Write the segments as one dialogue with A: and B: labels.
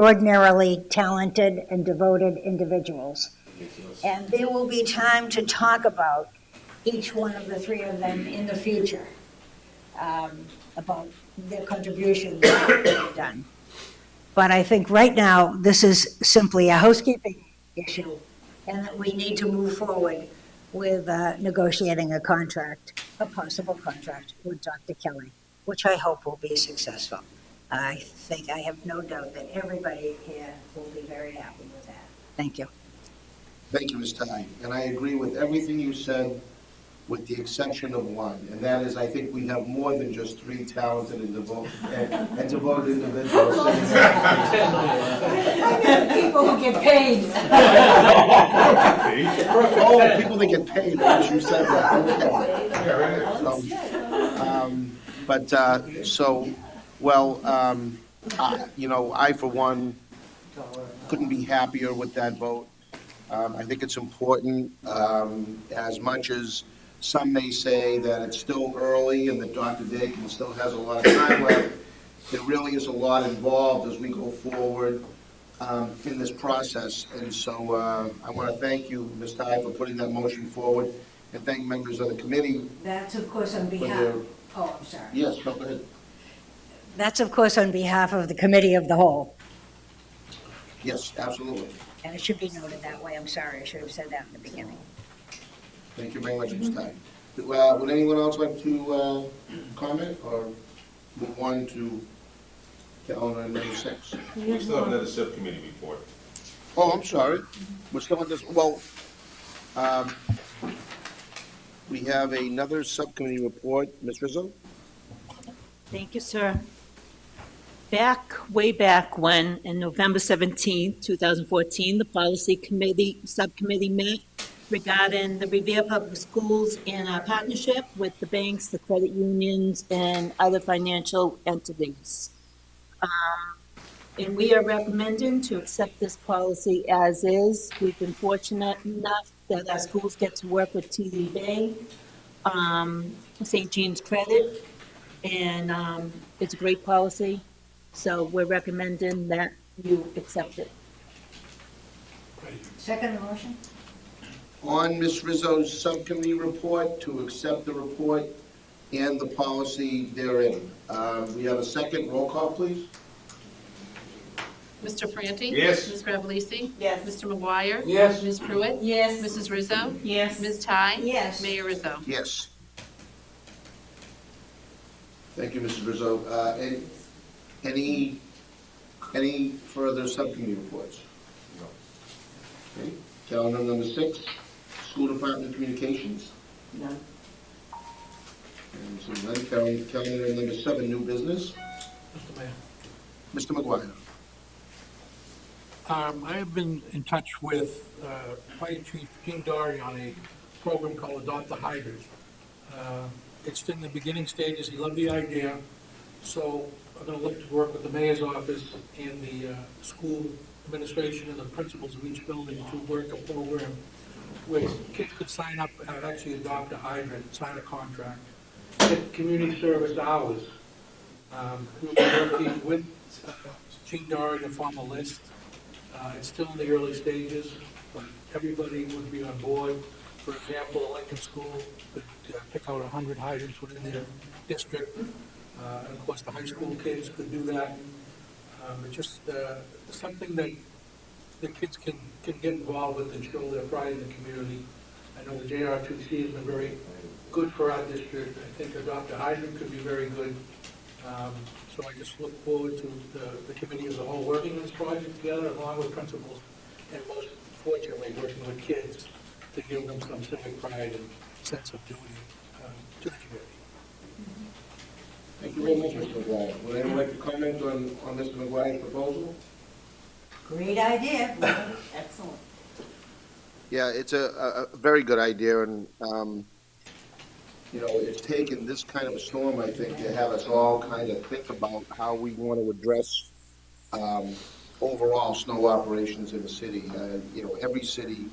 A: extraordinarily talented and devoted individuals. And there will be time to talk about each one of the three of them in the future, um, about their contributions that they've done. But I think right now, this is simply a housekeeping issue, and that we need to move forward with uh, negotiating a contract, a possible contract with Dr. Kelly, which I hope will be successful. I think, I have no doubt that everybody here will be very happy with that. Thank you.
B: Thank you, Ms. Ty. And I agree with everything you said, with the exception of one. And that is, I think we have more than just three talented and devoted, and and devoted individuals.
A: People who get paid.
B: Oh, people that get paid, as you said that. Okay. So, um, But, uh, so, well, um, I- you know, I, for one, couldn't be happier with that vote. Um, I think it's important, um, as much as some may say that it's still early and that Dr. Dakin still has a lot of time left, there really is a lot involved as we go forward um, in this process. And so uh, I want to thank you, Ms. Ty, for putting that motion forward, and thank members of the committee.
A: That's of course on behalf,
B: Whether-
A: oh, I'm sorry.
B: Yes, go ahead.
A: That's of course on behalf of the committee of the whole,
B: Yes, absolutely.
A: and it should be noted that way, I'm sorry, I should have said that in the beginning.
B: Thank you very much, Ms. Ty. Uh, Would anyone else like to uh, comment or move on to calendar number six?
C: We still have another subcommittee report.
B: Oh, I'm sorry. We're still on this, well, um, we have another subcommittee report. Ms. Rizzo?
D: Thank you, sir. Back, way back when, in November 17, 2014, the Policy Committee, Subcommittee met regarding the Revere Public Schools and our partnership with the banks, the credit unions, and other financial entities. Um, And we are recommending to accept this policy as is. We've been fortunate enough that our schools get to work with TD Bank, um, St. Jean's Credit, and um, it's a great policy, so we're recommending that you accept it.
A: Second motion?
B: On Ms. Rizzo's subcommittee report, to accept the report and the policy therein. Um, We have a second roll call, please?
E: Mr. Franti?
C: Yes.
E: Ms. Grabelisi?
D: Yes.
E: Mr. McGuire?
F: Yes.
E: Ms. Pruitt?
D: Yes.
E: Mrs. Rizzo?
D: Yes.
E: Ms. Ty?
A: Yes.
E: Mayor Rizzo?
B: Yes. Thank you, Mrs. Rizzo. Uh, and Any, any further subcommittee reports?
C: No.
B: Okay. Calendar number six, School Department Communications.
D: None.
B: And so then calendar calendar number seven, New Business.
F: Mr. Mayor.
B: Mr. McGuire.
F: Um, I have been in touch with, uh, Fire Chief Gene Dory on a program called Adopt a Hydrant. Uh, It's in the beginning stages, he loved the idea, so I'm gonna look to work with the mayor's office and the, uh, school administration and the principals of each building to work a program where kids could sign up and actually adopt a hydrant, sign a contract, get community service hours. Um, we'll be working with uh, Gene Dory to form a list, uh, It's still in the early stages, but everybody would be on board. For example, the Lincoln School could uh, pick out 100 hydrants within their district. Uh, And of course, the high school kids could do that. Um, It's just uh, something that the kids can, can get involved with and show their pride in the community. I know the JR2C has been very good for our district. I think Adopt a Hydrant could be very good. Um, So I just look forward to the- the committee as a whole working on this project together along with principals and most fortunately, working with kids to give them some civic pride and sense of duty um, to the community.
B: Thank you very much, Mr. McGuire. Would anyone like to comment on, on Mr. McGuire's proposal?
A: Great idea.
B: Yeah, it's a, a- a very good idea, and, um, you know, it's taken this kind of a storm, I think, to have us all kind of think about how we want to address, um, overall snow operations in the city. Uh, You know, every city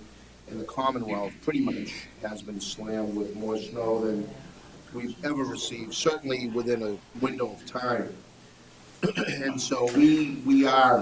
B: in the Commonwealth pretty much has been slammed with more snow than we've ever received, certainly within a window of time. And so we, we are